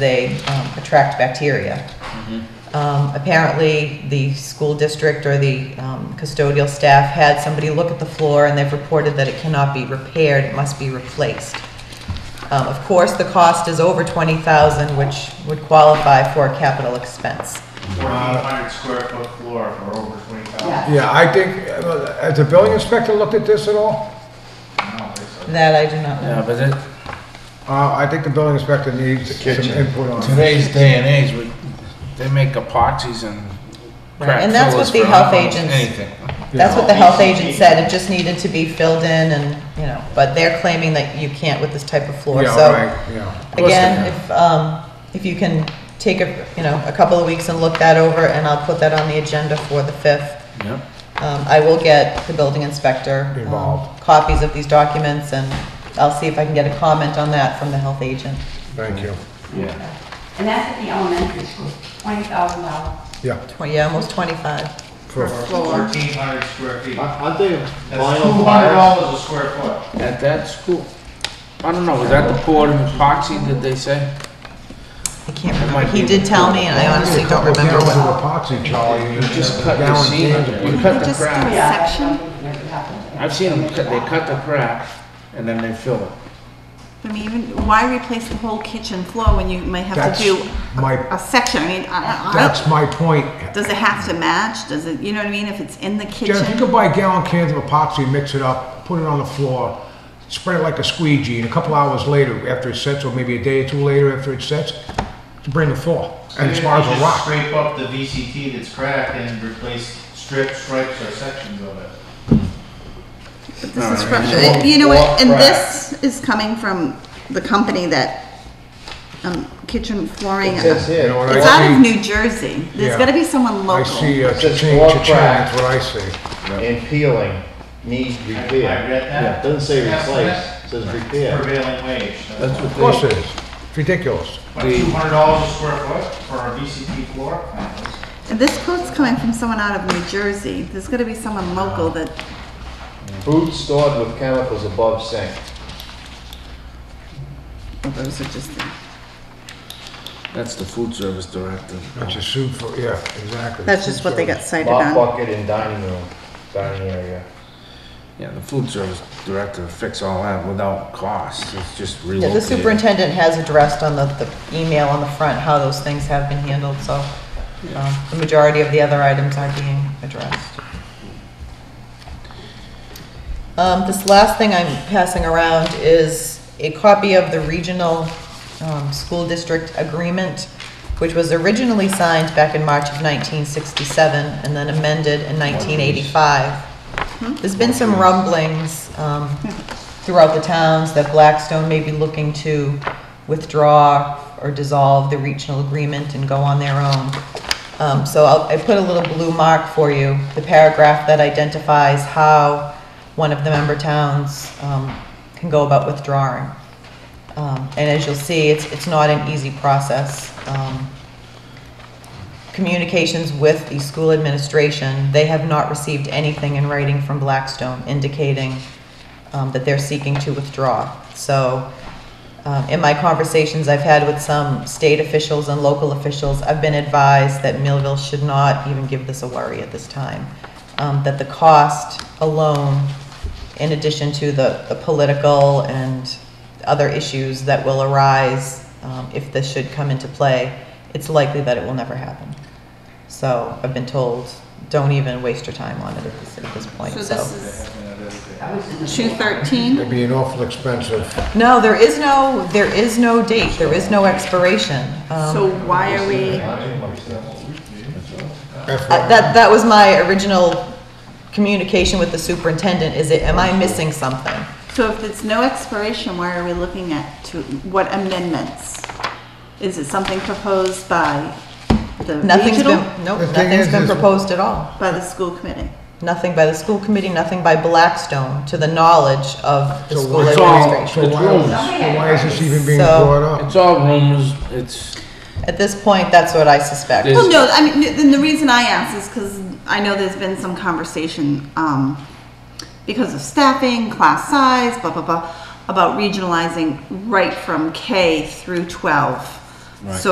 they um, attract bacteria. Um, Apparently, the school district or the um, custodial staff had somebody look at the floor, and they've reported that it cannot be repaired, it must be replaced. Um, Of course, the cost is over 20000 which would qualify for a capital expense. Fourteen hundred square foot floor for over twenty thousand. Yeah, I think, uh, has the building inspector looked at this at all? I don't think so. That I do not know. Yeah, but it, Uh, I think the building inspector needs some kitchen. input on it. today's day and age, we, they make epoxies and Right, crack and that's what fillers the for health almost agents- Anything. That's what the health agent said, it just needed to be filled in and, you know, but they're claiming that you can't with this type of floor, Yeah, so. right, yeah. course Again, they if, um, if you can take a, you know, a couple of weeks and look that over, and I'll put that on the agenda for the fifth. Yep. Um, I will get the building inspector. um, Involved. Copies of these documents, and I'll see if I can get a comment on that from the health agent. Thank you. Yeah. And that's at the elementary school, twenty thousand dollars. Yeah. Twenty, yeah, almost twenty-five. for- Floor. Fourteen hundred square feet. That's Aren't they two vinyl hundred bars? dollars a square foot. At that school. I don't know, was that the poured epoxy, did they say? I can't That remember. might He be- did tell me, and I honestly don't Couple remember gallons what. of epoxy, Charlie. and You just a cut the gallon seam, of you cut the Just crack. Section? I've seen them, cut- they cut the crack and then they fill it. I mean, even, why replace the whole kitchen floor when you might have That's to do my- a section? I mean, I, I That's don't, my point. does it have to match? Does it, you know what I mean? If it's in the Jeff, you kitchen, could buy gallon cans of epoxy, mix it up, put it on the floor, spread it like a squeegee, and a couple hours later, after it sets, or maybe a day or two later after it sets, bring the floor, and as far as a Just rock. Scrape up the VCT that's cracked and replace strips, stripes, or sections of it. but this is Alright. from, Wall- you know wall what? And crack. this is coming from the company that, um, kitchen flooring. It and- says You here, know what It's I out of see? New Jersey. Yeah. There's gotta be someone I local. see uh, It says cha-ching, floor cha-ching, crack. that's what I see. and peeling, need I I repair. read that. Doesn't say Yes, replace, says that's repair. Prevailing wage. That's Of course what it is. It's ridiculous. Two hundred dollars a square foot for a VCT floor? And this quote's coming from someone out of New Jersey. There's gotta be someone local that, Food stored with chemicals above sink. well, those are just, the- they, that's the food service directive. That's a suit for, yeah, exactly. that's just what they got cited Mop on. bucket in dining room, dining area. Yeah, the food service director fix all that without cost, it's just Yeah, relocated. the superintendent has addressed on the, the email on the front how those things have been handled, so, um, the majority of the other items are being addressed. Um, this last thing I'm passing around is a copy of the regional, um, school district agreement, which was originally signed back in March of nineteen sixty-seven and then amended in nineteen eighty-five. There's been some rumblings, um, throughout the towns that Blackstone may be looking to withdraw or dissolve the regional agreement and go on their own. Um, so I'll, I put a little blue mark for you, the paragraph that identifies how one of the member towns, um, can go about withdrawing. Um, and as you'll see, it's, it's not an easy process. Um, communications with the school administration, they have not received anything in writing from Blackstone indicating um, that they're seeking to withdraw. So um, in my conversations I've had with some state officials and local officials, I've been advised that Millville should not even give this a worry at this time. Um, That the cost alone, in addition to the, the political and other issues that will arise um, if this should come into play, it's likely that it will never happen. So I've been told, don't even waste your time on it at this, at this point, So so. this is two thirteen? It'd be an awful expensive. No, there is no, there is no date, there is no expiration. Um, So why are we, uh, That, that was my original communication with the superintendent, is it, am I missing something? so if it's no expiration, why are we looking at to, what amendments? Is it something proposed by the Nothing's regional? been, nope, The thing nothing's is- been is- proposed at all. By the school committee? Nothing by the school committee, nothing by Blackstone, to the knowledge of the So school what's all- administration. So why is, so why is this even being So- brought up? It's all rumors, it's, At this point, that's what I suspect. Is- Well, no, I mean, th- then the reason I ask is because I know there's been some conversation, um, because of staffing, class size, blah, blah, blah, about regionalizing right from K through twelve. Right. So